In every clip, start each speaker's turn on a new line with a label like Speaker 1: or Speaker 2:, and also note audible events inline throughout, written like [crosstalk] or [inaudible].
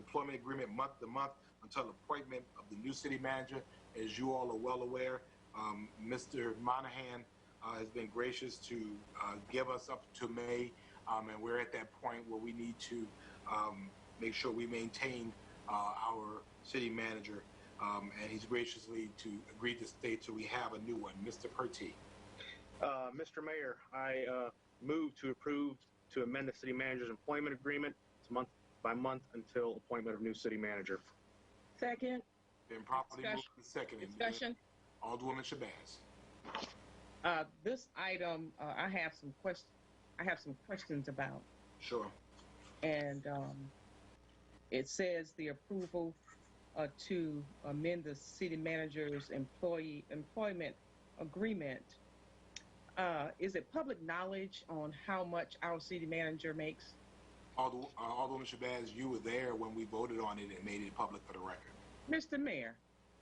Speaker 1: employment agreement month to month until appointment of the new city manager. As you all are well aware, um, Mr. Monahan uh, has been gracious to uh, give us up to May, um, and we're at that point where we need to um, make sure we maintain uh, our city manager, um, and he's graciously to agree to stay till we have a new one. Mr. Pertee.
Speaker 2: Uh, Mr. Mayor, I uh, move to approve to amend the city manager's employment agreement. It's month by month until appointment of new city manager.
Speaker 3: Second,
Speaker 1: Been properly moved
Speaker 4: Discussion.
Speaker 1: and seconded.
Speaker 4: Discussion?
Speaker 1: Alderwoman Shabazz.
Speaker 4: Uh, this item, uh, I have some questions, I have some questions about.
Speaker 1: Sure.
Speaker 4: And um, it says the approval uh, to amend the city manager's employee employment agreement. Uh, Is it public knowledge on how much our city manager makes?
Speaker 1: Alder, uh, Alderwoman Shabazz, you were there when we voted on it and made it public for the record.
Speaker 4: Mr. Mayor,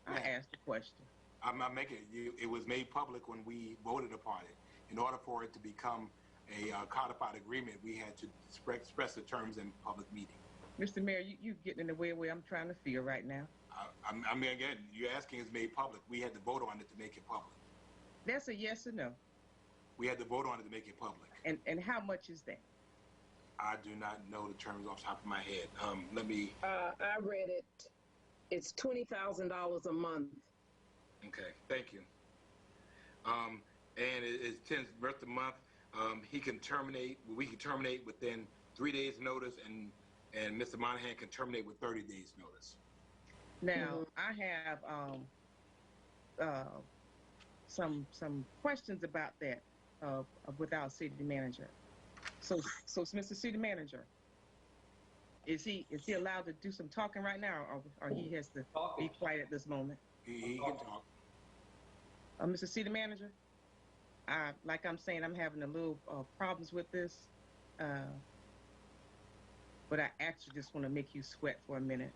Speaker 4: I
Speaker 1: Yeah.
Speaker 4: asked a question.
Speaker 1: I'm not making it. You, it was made public when we voted upon it. In order for it to become a uh, codified agreement, we had to spre- express the terms in public meeting.
Speaker 4: Mr. Mayor, you, you getting in the way of where I'm trying to feel right now.
Speaker 1: I, I'm, I mean, again, you're asking is made public. We had to vote on it to make it public.
Speaker 4: That's a yes or no.
Speaker 1: We had to vote on it to make it public.
Speaker 4: And, and how much is that?
Speaker 1: I do not know the terms off the top of my head. Um, let me.
Speaker 3: uh, I read it. It's twenty thousand dollars a month.
Speaker 1: Okay, thank you. Um, and it, it's tenth birth of month. Um, he can terminate. We can terminate within three days' notice, and and Mr. Monahan can terminate with thirty days' notice.
Speaker 4: Now, I have um, uh, some some questions about that uh, with our city manager. So, so it's Mr. City Manager, is he is he allowed to do some talking right now, or, or he has to be quiet at this moment?
Speaker 1: He, he
Speaker 4: Oh.
Speaker 1: can talk.
Speaker 4: Uh, Mr. City Manager, I, like I'm saying, I'm having a little uh, problems with this, uh, but I actually just want to make you sweat for a minute,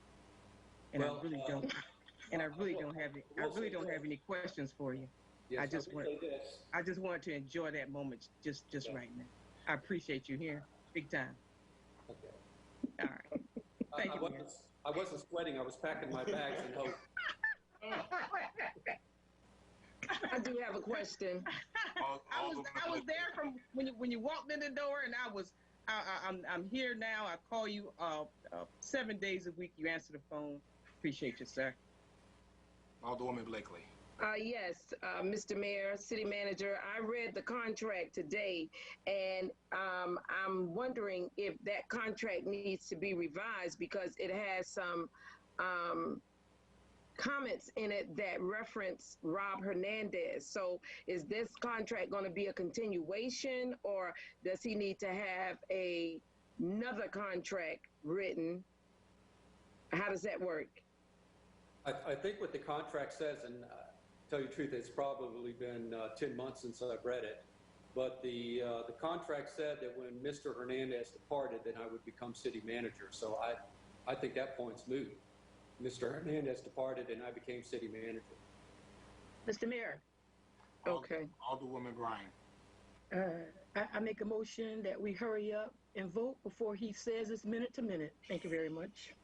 Speaker 4: and I
Speaker 5: Well,
Speaker 4: really
Speaker 5: uh,
Speaker 4: don't,
Speaker 5: [laughs]
Speaker 4: and I really don't have, any- I
Speaker 5: Well,
Speaker 4: really
Speaker 5: so-
Speaker 4: don't have any questions for you.
Speaker 5: Yes,
Speaker 4: I just
Speaker 5: will
Speaker 4: want-
Speaker 5: Say this.
Speaker 4: I just wanted to enjoy that moment just, just
Speaker 5: Yeah.
Speaker 4: right now. I appreciate you here, big time.
Speaker 5: Okay.
Speaker 4: All right. Thank
Speaker 5: I, I
Speaker 4: you,
Speaker 5: wasn't, I wasn't sweating. I was packing my bags and hope.
Speaker 3: I do have a question.
Speaker 1: All,
Speaker 4: [laughs] I was,
Speaker 1: Alderman-
Speaker 4: I was there from when you when you walked in the door, and I was, I, I, I'm I'm here now. I call you uh, uh, seven days a week. You answer the phone. Appreciate you, sir.
Speaker 1: Alderwoman Blakely.
Speaker 3: Uh, yes, uh, Mr. Mayor, City Manager, I read the contract today, and um, I'm wondering if that contract needs to be revised because it has some um, comments in it that reference Rob Hernandez. So, is this contract going to be a continuation, or does he need to have a, another contract written? How does that work?
Speaker 5: I, I think what the contract says, and uh, tell you the truth, it's probably been uh, 10 months since I've read it. But the, uh, the contract said that when Mr. Hernandez departed, then I would become city manager. So I, I think that point's moot. Mr. Hernandez departed and I became city manager.
Speaker 6: Mr. Mayor,
Speaker 1: Ald-
Speaker 3: Okay.
Speaker 1: Alderwoman Bryan.
Speaker 6: uh, I, I make a motion that we hurry up and vote before he says it's minute to minute. Thank you very much.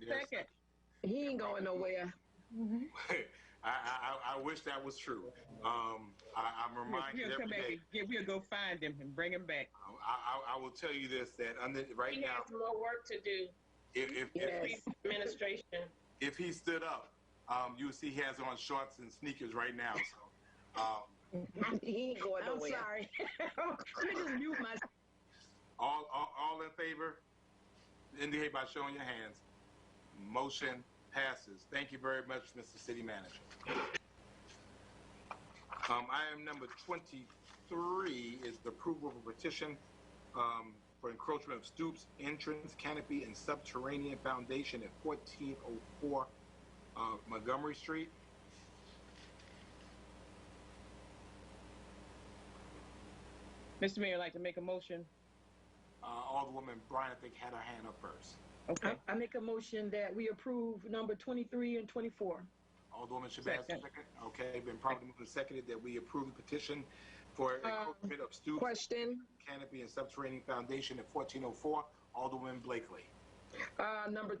Speaker 1: There's-
Speaker 4: Second.
Speaker 3: He ain't going nowhere. [laughs]
Speaker 1: I, I, I- I wish that was true. Um, I, I'm reminded
Speaker 4: We'll
Speaker 1: every
Speaker 4: come back.
Speaker 1: day.
Speaker 4: and get- We'll go find him and bring him back.
Speaker 1: I, I, I will tell you this: that under, right
Speaker 7: He
Speaker 1: now,
Speaker 7: has more work to do,
Speaker 1: if if, if,
Speaker 3: Yes.
Speaker 1: he,
Speaker 7: administration.
Speaker 1: if he stood up, um, you would see he has on shorts and sneakers right now. So, um,
Speaker 3: He ain't going
Speaker 6: I'm
Speaker 3: nowhere.
Speaker 6: sorry. Let me just mute myself.
Speaker 1: All, all, all in favor, indicate by showing your hands. Motion passes. Thank you very much, Mr. City Manager. Um, item number twenty-three is the approval of a petition, um, for encroachment of stoops, entrance, canopy, and subterranean foundation at fourteen oh four, uh, Montgomery Street.
Speaker 4: Mr. Mayor, I'd like to make a motion.
Speaker 1: Uh, Alderwoman Bryan, I think, had her hand up first.
Speaker 4: Okay.
Speaker 6: I, I make a motion that we approve number 23 and 24.
Speaker 1: Alderwoman Shabazz,
Speaker 4: Second.
Speaker 1: second. Okay, been properly moved and seconded that we approve the petition for encroachment of stoop,
Speaker 3: Question,
Speaker 1: canopy, and subterranean foundation at 1404. Alderwoman oh Blakely.
Speaker 3: uh, number